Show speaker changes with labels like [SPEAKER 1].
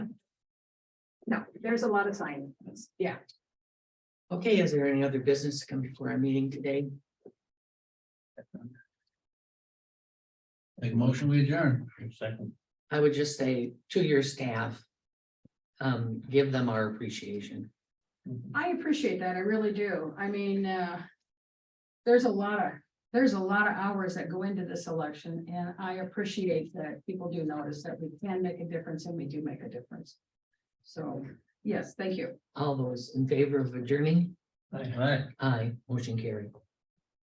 [SPEAKER 1] no, there's a lot of sign. Yeah,
[SPEAKER 2] Okay, is there any other business to come before our meeting today?
[SPEAKER 3] Make a motion, we adjourn.
[SPEAKER 4] Second.
[SPEAKER 2] I would just say to your staff. Um, give them our appreciation.
[SPEAKER 1] I appreciate that. I really do. I mean, uh. There's a lot of, there's a lot of hours that go into this election and I appreciate that people do notice that we can make a difference and we do make a difference. So, yes, thank you.
[SPEAKER 2] All those in favor of adjourning,
[SPEAKER 3] All right.
[SPEAKER 2] aye, motion carried.